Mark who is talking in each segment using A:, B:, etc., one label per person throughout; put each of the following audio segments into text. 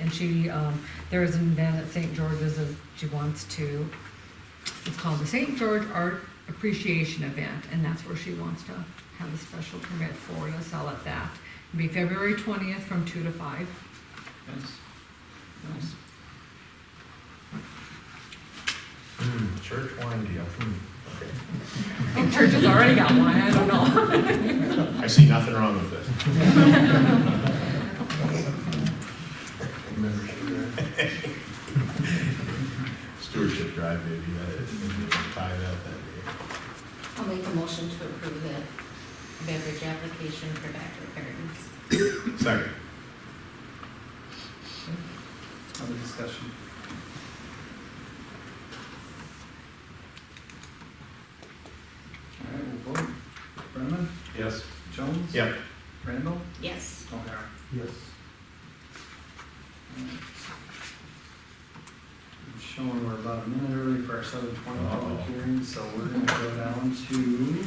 A: and she, um, there is an event at St. George's that she wants to. It's called the St. George Art Appreciation Event, and that's where she wants to have a special permit for to sell at that. It'll be February twentieth from two to five.
B: Nice, nice.
C: Hmm, church wine deal, hmm, okay.
A: And church has already got one, I don't know.
D: I see nothing wrong with this. Stewardship drive, maybe, that is, maybe tie that, that
E: I'll make a motion to approve the beverage application for Dr. Perkins.
D: day. Second,
B: Other discussion? All right, we'll vote. Brenneman?
D: yes,
B: Jones?
D: yep,
B: Randall?
E: Yes.
B: O'Hara?
C: Yes.
B: All right. I'm showing we're about a minute early for our seven twenty public
D: Uh-oh.
B: hearing, so we're gonna go down to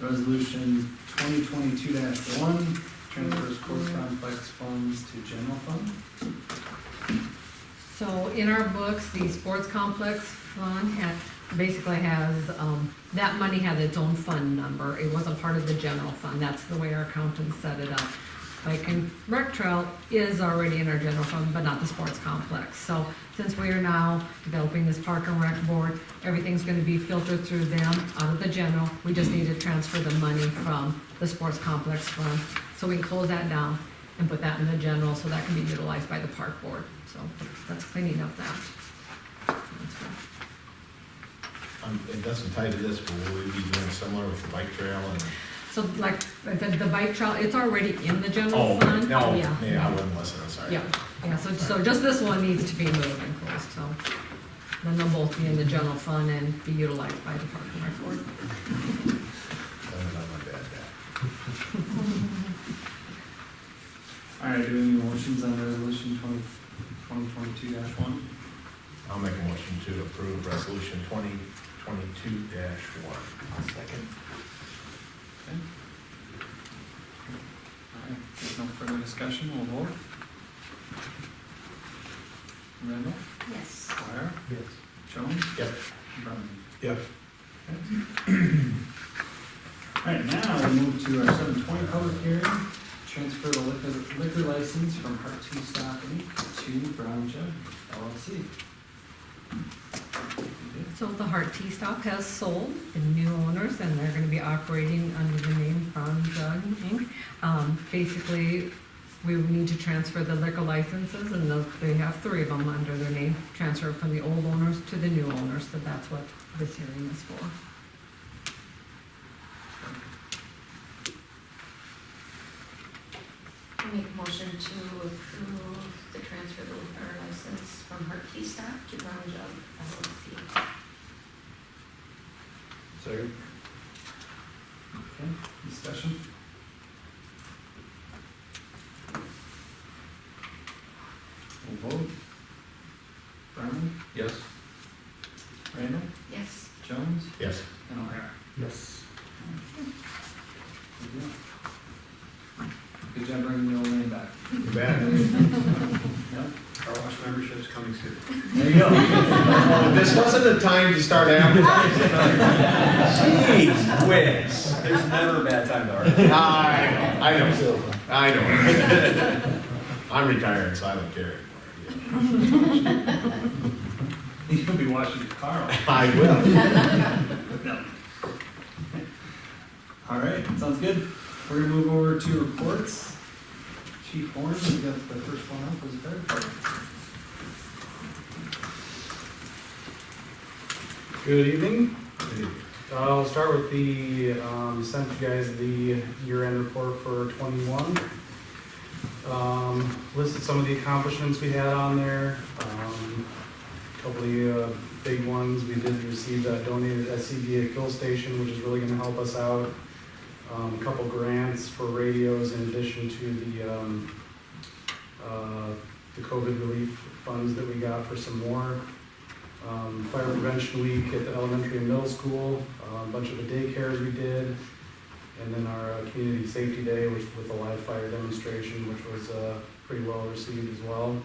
B: resolution twenty twenty-two one, transfers course complex funds to general fund.
A: So in our books, the sports complex fund had, basically has, um, that money had its own fund number. It wasn't part of the general fund. That's the way our accountants set it up. Bike and rec trail is already in our general fund, but not the sports complex. So since we are now developing this park and rec board, everything's gonna be filtered through them out of the general. We just need to transfer the money from the sports complex fund. So we can close that down and put that in the general, so that can be utilized by the park board. So that's cleaning up that.
D: um, it doesn't tie to this, but will we be doing similar with the bike trail and?
A: So like, I said, the bike trail, it's already in the
D: Oh,
A: general fund.
D: No,
A: Yeah.
D: yeah, I wasn't listening, sorry.
A: Yeah, yeah, so, so just this one needs to be moved and closed, so. Then they'll both be in the general fund and be utilized by the park and rec board.
D: Other than my bad dad.
B: All right, do we have any motions on resolution twenty, twenty twenty-two dash one?
D: I'll make a motion to approve resolution twenty twenty-two dash one.
B: second. Okay. All right, if there's no further discussion, we'll vote. Randall,
E: Yes.
B: Dwyer,
C: Yes.
B: Jones,
D: Yep,
B: Brenneman.
D: yep.
B: All right, now we move to our seven twenty public hearing, transfer the liquor, liquor license from Heart Two Stop Inc. to Brown Jug LLC.
A: So the Heart Tea Stop has sold the new owners, and they're gonna be operating under the name Brown Jug Inc. Um, basically, we would need to transfer the liquor licenses, and those- they have three of them under their name, transfer from the old owners to the new owners, so that's what this hearing is for.
E: I'll make a motion to approve the transfer of the liquor license from Harkey Stop to Brown Jug LLC.
C: Second?
B: Okay, discussion? We'll vote. Brenneman,
C: Yes.
B: Randall,
E: Yes.
B: Jones,
D: Yes.
B: and O'Hara.
C: Yes.
B: Good deal. Good job bringing the old name back.
D: You bet.
B: Yep.
F: Car wash membership's coming soon.
B: There you go.
D: Oh, This wasn't the time to start advertising.
F: Jeez, whiz. There's never a bad time to argue.
D: Ah, I know, I know, I know. I'm retired, so I don't care anymore. yeah.
B: You'll be washing your car off.
D: I will.
B: All right, sounds good. We're gonna move over to reports. Chief Horn, we got the first one up, was the fire department.
G: Good evening. Uh, I'll start with the, um, sent you guys the year-end report for twenty-one. Um, listed some of the accomplishments we had on there. Um, Couple of the, uh, big ones, we did receive that donated SCBA kill station, which is really gonna help us out. Um, a couple grants for radios in addition to the, um, uh, the COVID relief funds that we got for some more um, fire prevention week at the elementary and middle school, uh, a bunch of the daycares we did, And then our uh, community safety day, which with a live fire demonstration, which was uh, pretty well received as well.